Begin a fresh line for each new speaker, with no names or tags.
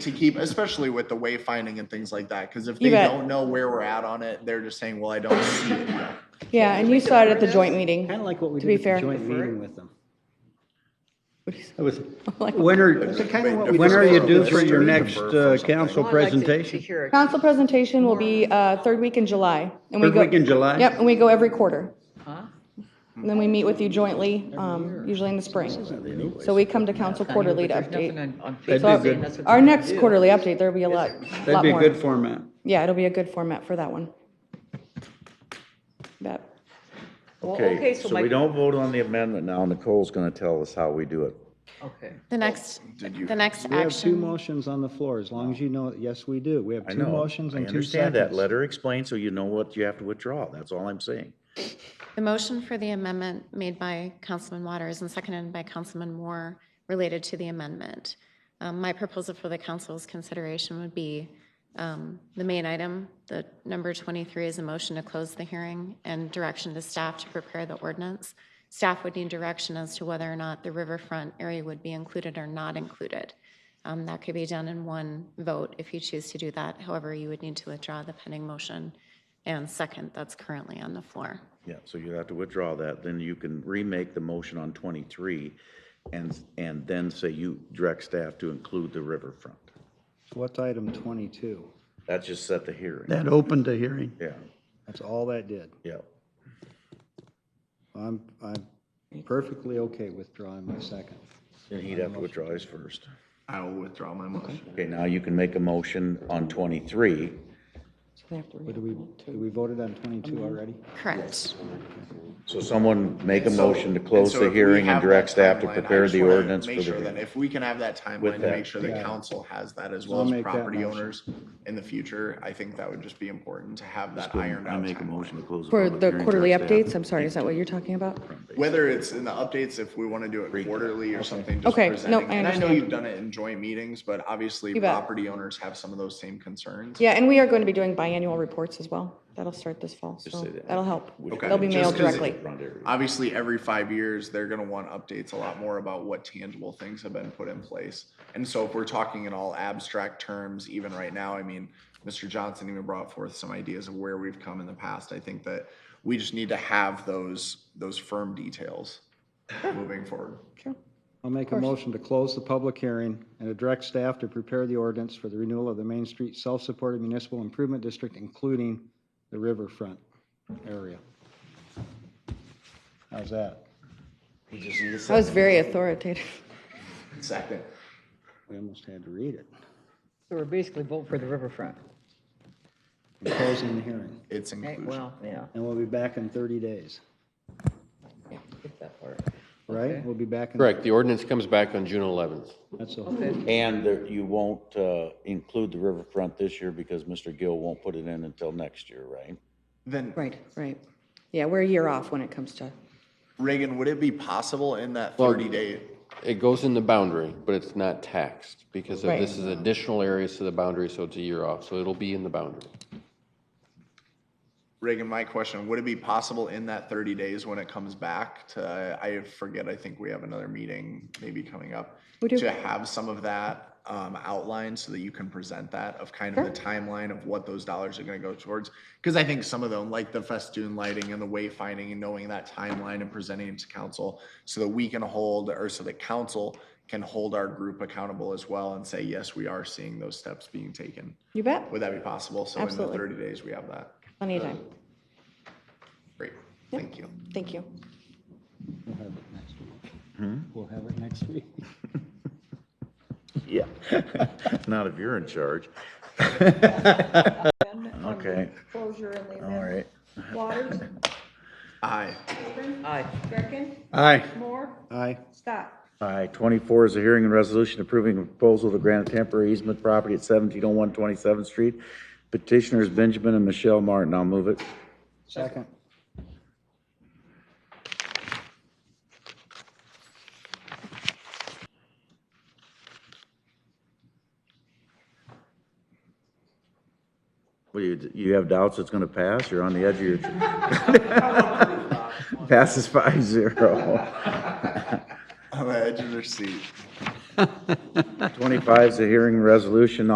to keep, especially with the wayfinding and things like that, because if
You
they
bet.
don't know where we're at on it, they're just saying, well, I don't see it. yet."
Yeah, and you saw it at the joint
Kind
meeting.
of like what we
To
did
be
with the
fair.
joint
Defer it.
meeting with them.
What do you say?
That was,
Like-
when are,
kinda what we
when are you
just-
due for your
Defer
next
from
uh,
something.
council
Well, I'd like to- to
presentation?
hear it.
Council presentation will be uh, third week in July. and we
Third
go-
week in July?
Yep, and we go every quarter.
Huh?
And then we meet with you jointly, um, usually in the spring. So we come to council quarterly to
There's nothing
update.
on, on
That'd
So
be
Facebook saying that's
good,
what.
Our
they're gonna
next
do.
quarterly update, there'll be a lot,
that'd
lot
be a good
more.
format.
Yeah, it'll be a good format for that one. Bet.
Well,
Okay,
so
so
my-
we don't vote on the amendment now. Nicole's going to tell us how we do it.
Okay.
The next,
Did you?
the next
We have two
action,
motions on the floor, as long as you know, yes, we do. We have
I
two
know.
motions
I
and two
understand that. Let
seconds.
her explain so you know what you have to withdraw. That's all I'm saying.
the motion for the amendment made by Councilman Waters and seconded by Councilman Moore related to the amendment. Um, My proposal for the council's consideration would be um, the main item, the number 23 is a motion to close the hearing and direction to staff to prepare the ordinance. Staff would need direction as to whether or not the riverfront area would be included or not included. Um, That could be done in one vote if you choose to do that. However, you would need to withdraw the pending motion and second that's currently on the floor.
Yeah, so you have to withdraw that. Then you can remake the motion on 23 and, and then say you direct staff to include the riverfront.
What's item 22?
That just set the hearing.
That opened the hearing.
Yeah,
That's all that did.
yeah.
I'm, I'm perfectly okay withdrawing my second.
Then he'd have to withdraw his first.
I will withdraw my motion.
Okay, now you can make a motion on 23.
What do we, do we voted on 22 already?
Correct.
So someone make a
So-
motion to close
so
the
if we
hearing and
have
direct
that
staff to
timeline, I
prepare
just
the
wanna
ordinance for
Make sure that
the.
if we can have that timeline to
that.
make sure the
Yeah.
council has that as
So
well
I'll
as
make that
property
motion.
owners in the future, I think that would just be important to have that ironed
I
out
make a
timeline.
motion to close.
For
public
the
hearing,
quarterly
direct
updates,
staff-
I'm sorry, is that what you're talking about?
Whether it's in the updates, if we want to do it quarterly or something, just
Okay, no,
presenting.
I
And I know
understand.
you've done it in joint meetings, but obviously
You bet.
property owners have some of those same concerns.
Yeah, and we are going to be doing biannual reports as well. That'll start this fall, so
say that.
that'll help.
Okay.
They'll be
Just
mailed
'cause it-
directly.
Front area.
Obviously, every five years, they're gonna want updates a lot more about what tangible things have been put in place. And so if we're talking in all abstract terms, even right now, I mean, Mr. Johnson even brought forth some ideas of where we've come in the past. I think that we just need to have those, those firm details moving forward.
Sure.
I'll make a motion to close the public hearing and to direct staff to prepare the ordinance for the renewal of the Main Street Self-Supported Municipal Improvement District, including the riverfront area. How's that?
That was very authoritative.
Second.
We almost had to read it.
So we're basically voting for the riverfront.
We're Closing the hearing.
It's
Hey,
inclusion.
Well, yeah,
And we'll be back in 30 days,
get that part.
right?
Okay.
We'll be back in.
Correct, the ordinance comes back on June 11th.
That's all.
Okay.
And there- you won't uh, include the riverfront this year because Mr. Gill won't put it in until next year, right?
Then
Right, right. Yeah, we're a year off when it comes to,
Reagan, would it be possible in that
Well-
thirty day?
It goes in the boundary, but it's not taxed because of this is additional areas to the boundary, so it's a year off. So it'll be in the boundary.
Reagan, my question, would it be possible in that thirty days when it comes back to, I forget, I think we have another meeting maybe coming up.
We do.
To have some of that um outlined so that you can present that of kind of the timeline of what those dollars are gonna go towards? Cause I think some of them, like the festoon lighting and the wayfinding and knowing that timeline and presenting it to council so that we can hold, or so that council can hold our group accountable as well and say, yes, we are seeing those steps being taken.
you bet,
Would that be possible? So in the
Absolutely.
thirty days, we have that.
plenty of time.
Great, thank you.
Thank you.
We'll have it next week. We'll have it next week.
Yeah. Not if you're in charge. Okay.
Closure and the
All
amendment.
right.
Waters,
Aye.
Apron,
Aye.
Greckin,
Aye.
Moore,
Aye.
Scott.
Aye. 24 is a hearing and resolution approving a proposal to grant a temporary easement property at 1701 27th Street. Petitioners Benjamin and Michelle Martin. I'll move it.
Second.
Well, you, you have doubts it's going to pass? You're on the edge of your. Passes five zero.
On the edge of their seat.
Twenty-five is a hearing resolution